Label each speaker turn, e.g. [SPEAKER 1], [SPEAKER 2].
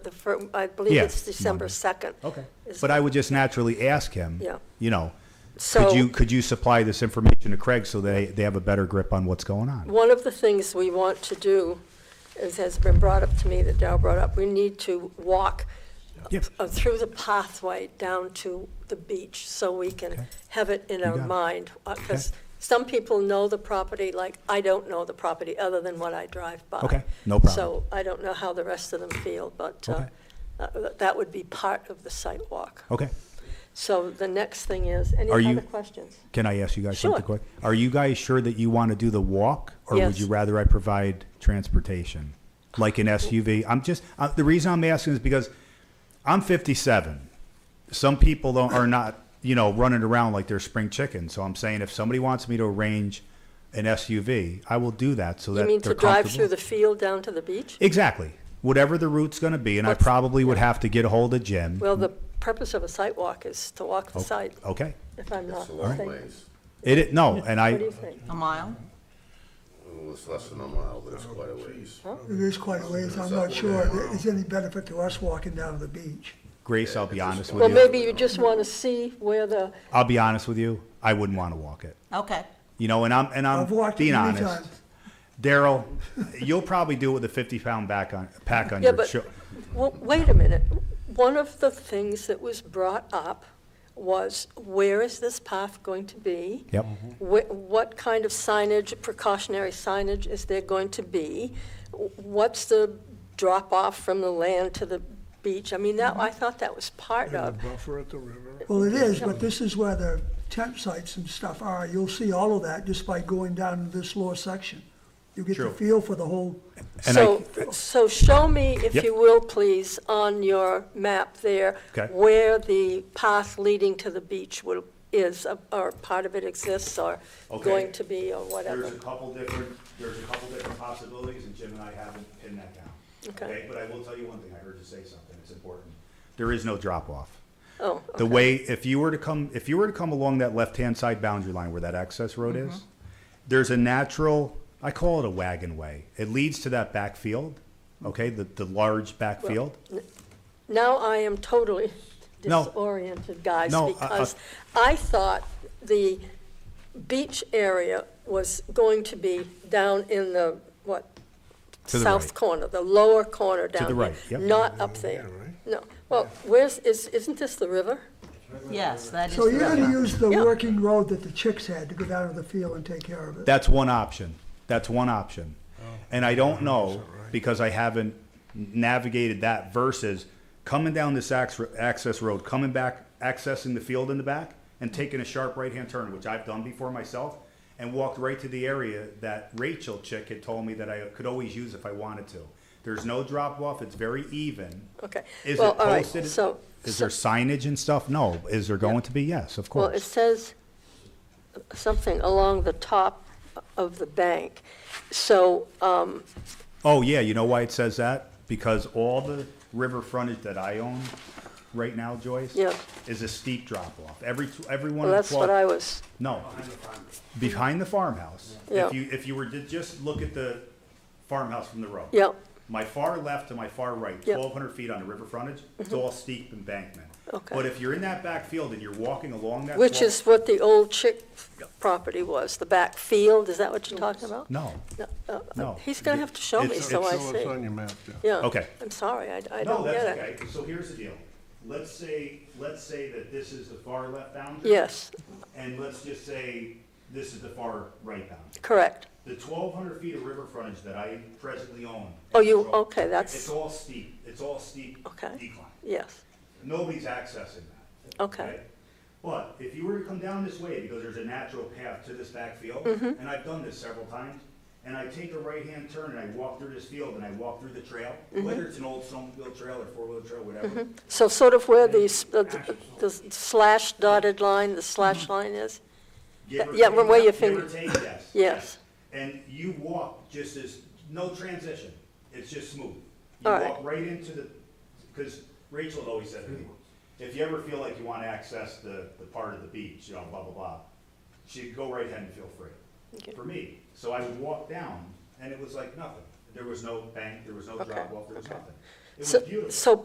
[SPEAKER 1] the fir, I believe
[SPEAKER 2] Yeah,
[SPEAKER 1] it's December
[SPEAKER 2] Monday.
[SPEAKER 1] 2nd.
[SPEAKER 2] Okay.
[SPEAKER 1] Is
[SPEAKER 2] But I would just naturally ask him.
[SPEAKER 1] Yeah.
[SPEAKER 2] You know, could
[SPEAKER 1] So,
[SPEAKER 2] you, could you supply this information to Craig so they, they have a better grip on what's going on?
[SPEAKER 1] one of the things we want to do, as has been brought up to me, that Dow brought up, we need to walk
[SPEAKER 2] Yes.
[SPEAKER 1] uh, through the pathway down to the beach so we can
[SPEAKER 2] Okay.
[SPEAKER 1] have it in
[SPEAKER 2] got
[SPEAKER 1] our
[SPEAKER 2] it.
[SPEAKER 1] mind. Because some people know the property, like, I don't know the property, other than what I drive by.
[SPEAKER 2] Okay, no problem.
[SPEAKER 1] So I don't know how the rest of them feel, but uh,
[SPEAKER 2] Okay.
[SPEAKER 1] uh, that would be part of the site walk.
[SPEAKER 2] Okay.
[SPEAKER 1] So the next thing is, any
[SPEAKER 2] Are you-
[SPEAKER 1] other questions?
[SPEAKER 2] Can I ask you guys
[SPEAKER 1] Sure.
[SPEAKER 2] something quick? Are you guys sure that you want to do the walk? Or would
[SPEAKER 1] Yes.
[SPEAKER 2] you rather I provide transportation? Like an SUV? I'm just, uh, the reason I'm asking is because I'm 57. Some people don't, are not, you know, running around like they're spring chickens. So I'm saying if somebody wants me to arrange an SUV, I will do that so
[SPEAKER 1] You
[SPEAKER 2] that
[SPEAKER 1] mean
[SPEAKER 2] they're
[SPEAKER 1] to drive
[SPEAKER 2] comfortable.
[SPEAKER 1] through the field down to the beach?
[SPEAKER 2] Exactly. Whatever the route's going to be, and I
[SPEAKER 1] What's-
[SPEAKER 2] probably would have to get a hold of Jim.
[SPEAKER 1] Well, the purpose of a site walk is to walk the
[SPEAKER 2] Oh.
[SPEAKER 1] site,
[SPEAKER 2] okay.
[SPEAKER 1] if I'm not
[SPEAKER 3] It's a long
[SPEAKER 1] mistaken.
[SPEAKER 3] ways.
[SPEAKER 2] It, it no, and
[SPEAKER 1] What do
[SPEAKER 2] I
[SPEAKER 1] you think?
[SPEAKER 4] A mile?
[SPEAKER 3] Well, it's less than a mile, but it's quite a ways.
[SPEAKER 5] It is quite a ways, I'm not sure there's any benefit to us walking down to the beach.
[SPEAKER 2] Grace, I'll be honest with
[SPEAKER 1] Well,
[SPEAKER 2] you.
[SPEAKER 1] maybe you just want to see where the,
[SPEAKER 2] I'll be honest with you. I wouldn't want to walk it.
[SPEAKER 4] Okay.
[SPEAKER 2] You know, and I'm and I'm
[SPEAKER 5] I've walked it
[SPEAKER 2] being
[SPEAKER 5] many
[SPEAKER 2] honest.
[SPEAKER 5] times.
[SPEAKER 2] Daryl, you'll probably do it with a 50 pound back on pack on
[SPEAKER 1] yeah,
[SPEAKER 2] your
[SPEAKER 1] but,
[SPEAKER 2] sho-
[SPEAKER 1] well, wait a minute. One of the things that was brought up was, where is this path going to be?
[SPEAKER 2] Yep.
[SPEAKER 1] Wh- What kind of signage, precautionary signage is there going to be? Wh- What's the drop-off from the land to the beach? I mean, that, I thought that was part of.
[SPEAKER 6] Buffer at the river.
[SPEAKER 5] Well, it is, but this is where the tent sites and stuff are, you'll see all of that just by going down this lower section. You get the
[SPEAKER 2] True.
[SPEAKER 5] feel for the whole,
[SPEAKER 2] And
[SPEAKER 1] So, so show me, if
[SPEAKER 2] Yep.
[SPEAKER 1] you will, please, on your map there,
[SPEAKER 2] Okay.
[SPEAKER 1] where the path leading to the beach will, is, or part of it exists, or
[SPEAKER 2] Okay.
[SPEAKER 1] going to be, or whatever.
[SPEAKER 2] There's a couple different, there's a couple different possibilities, and Jim and I haven't pinned that down.
[SPEAKER 1] Okay.
[SPEAKER 2] But I will tell you one thing, I heard you say something, it's important. There is no drop off.
[SPEAKER 1] Oh,
[SPEAKER 2] The way, if you were to come, if you were to come along that left-hand side boundary line where that access road is, there's a natural, I call it a wagon way. It leads to that back field, okay, the, the large back field.
[SPEAKER 1] now I am totally
[SPEAKER 2] No.
[SPEAKER 1] disoriented, guys,
[SPEAKER 2] No, I- I-
[SPEAKER 1] because I thought the beach area was going to be down in the, what?
[SPEAKER 2] To the
[SPEAKER 1] South
[SPEAKER 2] right.
[SPEAKER 1] corner, the lower corner down
[SPEAKER 2] the
[SPEAKER 1] here,
[SPEAKER 2] right, yep.
[SPEAKER 1] Not up there. No, well, where's, is, isn't this the river?
[SPEAKER 4] Yes, that is.
[SPEAKER 5] so you're
[SPEAKER 4] the-
[SPEAKER 5] gonna use the
[SPEAKER 1] Yeah.
[SPEAKER 5] working road that the chicks had to go down to the field and take care of it.
[SPEAKER 2] That's one option. That's one option. And I don't know, because I haven't navigated that versus coming down this ax- access road, coming back, accessing the field in the back, and taking a sharp right-hand turn, which I've done before myself, and walked right to the area that Rachel Chick had told me that I could always use if I wanted to. There's no drop-off, it's very even.
[SPEAKER 1] Okay.
[SPEAKER 2] Is
[SPEAKER 1] Well,
[SPEAKER 2] it
[SPEAKER 1] all right,
[SPEAKER 2] posted?
[SPEAKER 1] so-
[SPEAKER 2] Is there signage and stuff? No. Is there going to be? Yes, of
[SPEAKER 1] Well, it
[SPEAKER 2] course.
[SPEAKER 1] says something along the top of the bank. So, um,
[SPEAKER 2] Oh, yeah, you know why it says that? Because all the river frontage that I own right now, Joyce,
[SPEAKER 1] Yeah.
[SPEAKER 2] is a steep drop off. Every, tw- every one
[SPEAKER 1] well,
[SPEAKER 2] of
[SPEAKER 1] that's what
[SPEAKER 2] 12
[SPEAKER 1] I was,
[SPEAKER 2] No, behind the farmhouse.
[SPEAKER 1] Yeah.
[SPEAKER 2] If you, if you were to just look at the farmhouse from the road.
[SPEAKER 1] yeah,
[SPEAKER 2] My far left to my far right,
[SPEAKER 1] Yeah. Mm-hmm.
[SPEAKER 2] twelve hundred feet on the river frontage, it's all steep embankment.
[SPEAKER 1] Okay.
[SPEAKER 2] But if you're in that back field and you're walking along that.
[SPEAKER 1] which
[SPEAKER 2] 12
[SPEAKER 1] is what the old chick property was, the back field, is that what you're talking about?
[SPEAKER 2] No,
[SPEAKER 1] No, uh,
[SPEAKER 2] No.
[SPEAKER 1] He's gonna have to show me,
[SPEAKER 2] It's-
[SPEAKER 1] so I
[SPEAKER 6] It's
[SPEAKER 1] see.
[SPEAKER 6] on your map, yeah.
[SPEAKER 1] Yeah.
[SPEAKER 2] Okay.
[SPEAKER 1] I'm sorry, I, I
[SPEAKER 2] no,
[SPEAKER 1] don't
[SPEAKER 2] that's
[SPEAKER 1] get it.
[SPEAKER 2] okay. So here's the deal. Let's say, let's say that this is the far left boundary.
[SPEAKER 1] Yes,
[SPEAKER 2] And let's just say this is the far right boundary.
[SPEAKER 1] correct.
[SPEAKER 2] The twelve hundred feet of river frontage that I presently own.
[SPEAKER 1] Oh, you-
[SPEAKER 2] control,
[SPEAKER 1] okay, that's-
[SPEAKER 2] It's all steep, it's all steep
[SPEAKER 1] Okay.
[SPEAKER 2] decline.
[SPEAKER 1] Yes,
[SPEAKER 2] Nobody's accessing that.
[SPEAKER 1] Okay.
[SPEAKER 2] But if you were to come down this way, because there's a natural path to this back field,
[SPEAKER 1] Mm-hmm.
[SPEAKER 2] and I've done this several times, and I take a right-hand turn and I walk through this field and I walk through the trail,
[SPEAKER 1] Mm-hmm.
[SPEAKER 2] whether it's an old snowmobile trail or four-wheel trail, whatever,
[SPEAKER 1] so sort of where the, s- the the slash dotted line, the slash
[SPEAKER 2] Mm-hmm.
[SPEAKER 1] line is?
[SPEAKER 2] give or
[SPEAKER 1] Yeah,
[SPEAKER 2] take-
[SPEAKER 1] where your finger-
[SPEAKER 2] Give or take, yes.
[SPEAKER 1] Yes.
[SPEAKER 2] And you walk just as, no transition, it's just smooth. You
[SPEAKER 1] All right.
[SPEAKER 2] walk right into the, because Rachel had always said, to me, if you ever feel like you want to access the, the part of the beach, you know, blah, blah, blah, she'd go right ahead and feel
[SPEAKER 1] Okay.
[SPEAKER 2] free, for me. So I would walk down, and it was like nothing. There was no bank, there was no
[SPEAKER 1] Okay,
[SPEAKER 2] drop off, there was
[SPEAKER 1] okay.
[SPEAKER 2] nothing.
[SPEAKER 1] So- So